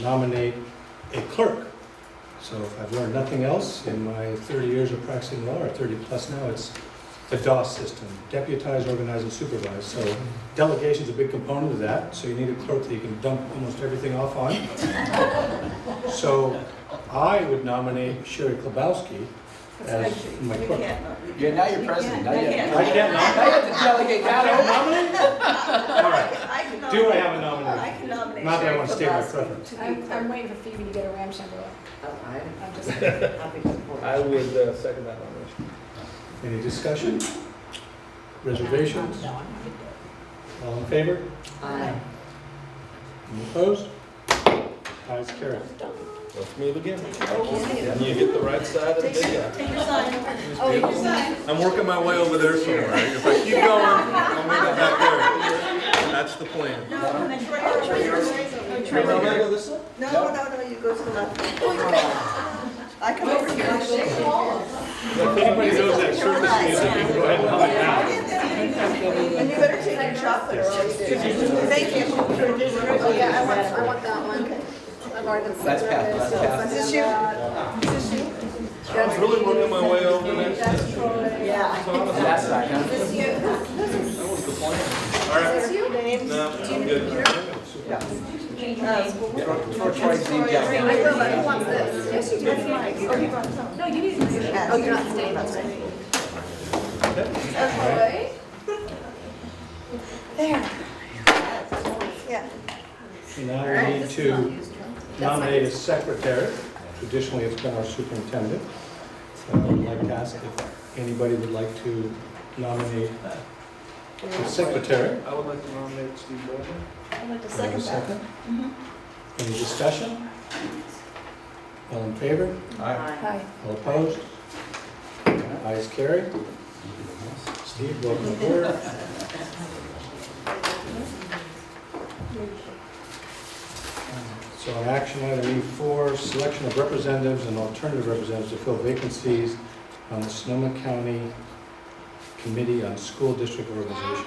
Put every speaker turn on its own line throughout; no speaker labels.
nominate a clerk. So if I've learned nothing else in my 30 years of practicing law, or 30-plus now, it's the DOS system, deputize, organize, and supervise. So delegation's a big component of that, so you need a clerk that you can dump almost everything off on. So I would nominate Sherry Klobowski as my
You
clerk.
can't. not-
You're now your president, now you
You
have,
can't.
I can't nom-
now you have to delegate that
All right,
I can
do I have
nominate-
a
I
nominee?
can nominate.
Not that I
Sherry
want to state my
Kowalski
preference.
to be
I'm,
clerk.
I'm waiting for Phoebe to get her ramshackle.
Oh,
I'm
I'm just,
happy to support.
I would uh, second that nomination.
Any discussion? Reservations?
No, I'm not.
All in favor?
Aye.
Any opposed? Ayes, carried.
Let's move again. You get the right side of the big guy.
Take your sign.
It's
Oh,
beautiful.
you sign.
I'm working my way over there somewhere. If I keep going, I'll make it back there. That's the plan.
No, I'm a treasurer.
Am I gonna go this way?
No, no, no, you go to the left. I come over here.
If anybody knows that circus music, you can go ahead and hum it now.
And you better take your chocolate or I'll eat it. Thank you.
Oh, yeah, I want, I want that one. I've already been sitting
That's
on this,
passed,
so
that's passed.
send
Is this
it
you?
out.
I'm really working my way over there.
That's Troy.
Yeah.
out. That side, huh?
This you.
All right,
This you?
no, I'm good.
Troy, Troy's name down.
I will, but who wants this? Yes, you do. Oh, you brought some. No, you need this. Oh, you're not staying, that's right. Troy? There.
Yeah.
Now we need to nominate a secretary. Traditionally, it's been our superintendent. So I'd like to ask if anybody would like to nominate a secretary.
I would like to nominate Steve Baldwin.
I'd like to
Do I have a second?
Mm-hmm.
Any discussion? All in favor?
Hi.
All opposed? Ayes carried. Steve, welcome aboard. So on action item E4, selection of representatives and alternative representatives to fill vacancies on the Sonoma County Committee on School District Organization.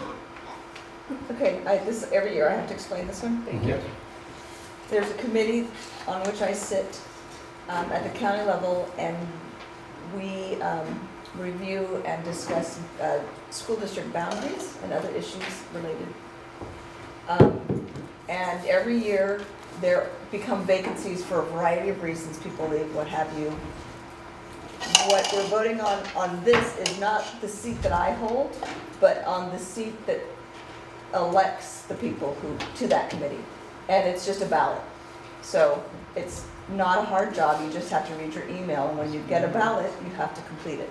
Okay, I, this, every year I have to explain this one.
Thank you.
There's a committee on which I sit um, at the county level, and we um, review and discuss uh, school district boundaries and other issues related. Um, And every year, there become vacancies for a variety of reasons, people leave, what have you. What we're voting on, on this is not the seat that I hold, but on the seat that elects the people who, to that committee and it's just a ballot. So it's not a hard job, you just have to read your email, and when you get a ballot, you have to complete it.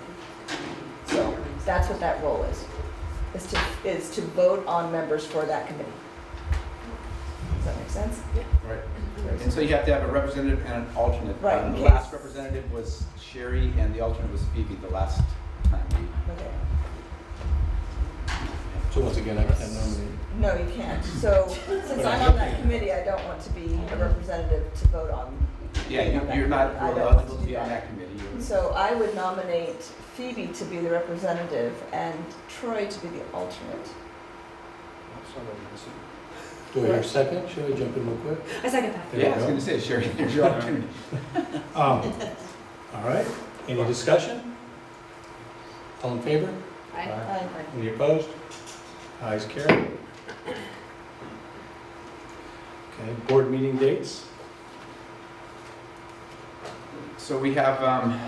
So that's what that role is, is to, is to vote on members for that committee. Does that make sense?
Right. And so you have to have a representative and an alternate.
Right,
Um, The
in case-
last representative was Sherry and the alternate was Phoebe the last time we.
Okay.
So once again, I can nominate.
No, you can't. So since I'm on that committee, I don't want to be a representative to vote on.
Yeah, you- you're not
I don't want
eligible
to
to
do
be on
that.
that committee. You're-
So I would nominate Phoebe to be the representative and Troy to be the alternate.
Do I hear a second? Should I jump in real quick?
I second that.
There we
Yeah, I was
go.
gonna say, Sherry, there's your opportunity.
Um, All right, any discussion? All in favor? Aye. Any opposed? Ayes carried. Okay, board meeting dates?
So we have um,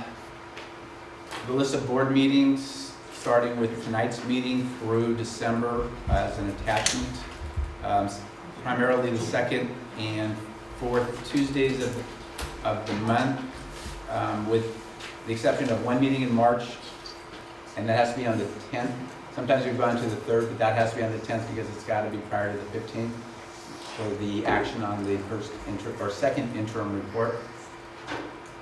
the list of board meetings, starting with tonight's meeting through December as an attachment. Um, Primarily the second and fourth Tuesdays of, of the month, um, with the exception of one meeting in March, and that has to be on the 10th. Sometimes we've gone to the 3rd, but that has to be on the 10th because it's got to be prior to the 15th. So the action on the first inter, or second interim report.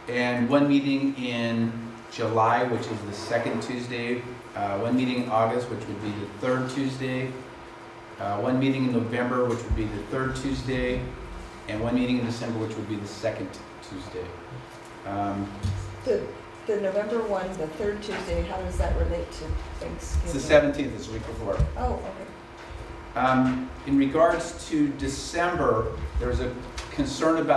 And one meeting in July, which is the second Tuesday, uh, one meeting in August, which would be the third Tuesday, uh, one meeting in November, which would be the third Tuesday, and one meeting in December, which would be the second Tuesday. Um,
The, the November one, the third Tuesday, how does that relate to Thanksgiving?
It's the seventeenth, it's the week before.
Oh, okay.
Um, In regards to December, there was a concern about